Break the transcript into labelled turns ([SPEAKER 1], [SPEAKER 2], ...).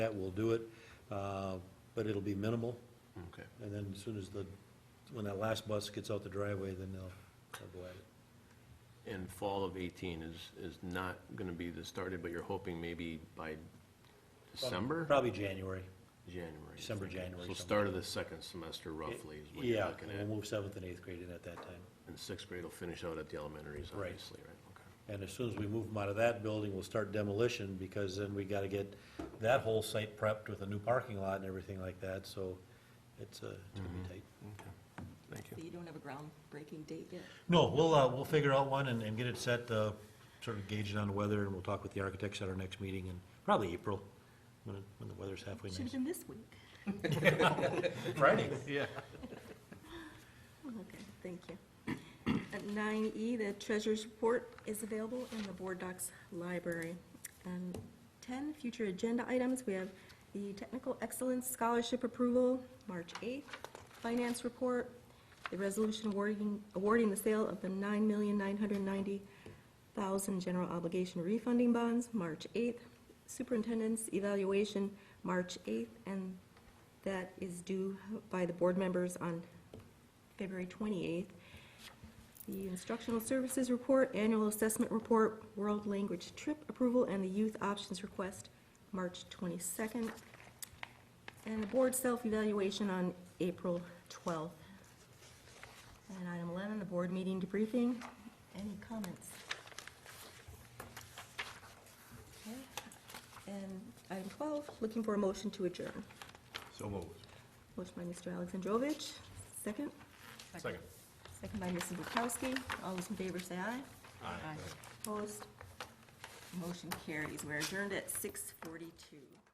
[SPEAKER 1] that, we'll do it, uh, but it'll be minimal.
[SPEAKER 2] Okay.
[SPEAKER 1] And then as soon as the, when that last bus gets out the driveway, then they'll, they'll go at it.
[SPEAKER 2] And fall of 18 is, is not going to be the started, but you're hoping maybe by December?
[SPEAKER 1] Probably January.
[SPEAKER 2] January. you're
[SPEAKER 1] December,
[SPEAKER 2] thinking.
[SPEAKER 1] January,
[SPEAKER 2] So
[SPEAKER 1] something
[SPEAKER 2] start of the second semester roughly is what you're
[SPEAKER 1] Yeah,
[SPEAKER 2] looking
[SPEAKER 1] and
[SPEAKER 2] at.
[SPEAKER 1] we'll move seventh and eighth grade in at that time.
[SPEAKER 2] And sixth grade will finish out at the elementaries,
[SPEAKER 1] Right.
[SPEAKER 2] obviously, right?
[SPEAKER 1] And as soon as we move them out of that building, we'll start demolition, because then we gotta get that whole site prepped with a new parking lot and everything like that, so it's, uh, it's gonna
[SPEAKER 2] Mm-hmm.
[SPEAKER 1] be tight.
[SPEAKER 2] Okay. Okay. Thank
[SPEAKER 3] So you don't have a groundbreaking date yet?
[SPEAKER 1] No, we'll, uh, we'll figure out one and, and get it set, uh, sort of gauge it on the weather, and we'll talk with the architects at our next meeting in probably April, when, it- when the weather's halfway
[SPEAKER 3] Should have
[SPEAKER 1] nice.
[SPEAKER 3] been this week.
[SPEAKER 1] Friday.
[SPEAKER 2] Yeah.
[SPEAKER 3] Okay, thank you. At nine E, the treasurer's report is available in the board docs library. And ten, future agenda items, we have the technical excellence scholarship approval, March eighth, finance report, the resolution awarding, awarding the sale of the nine million nine hundred ninety thousand general obligation refunding bonds, March eighth, superintendent's evaluation, March eighth, and that is due by the board members on February 28th. The instructional services report, annual assessment report, world language trip approval, and the youth options request, March 22nd. And the board self-evaluation on April 12th. And item 11, the board meeting debriefing. Any comments? Okay. And item 12, looking for a motion to adjourn.
[SPEAKER 2] So moved.
[SPEAKER 3] Motion by Mr. Alexandrovich, second.
[SPEAKER 2] Second.
[SPEAKER 3] Second by Mrs. Bukowski. All those in favor say aye. Opposed? Motion carries. We're adjourned at 6:42.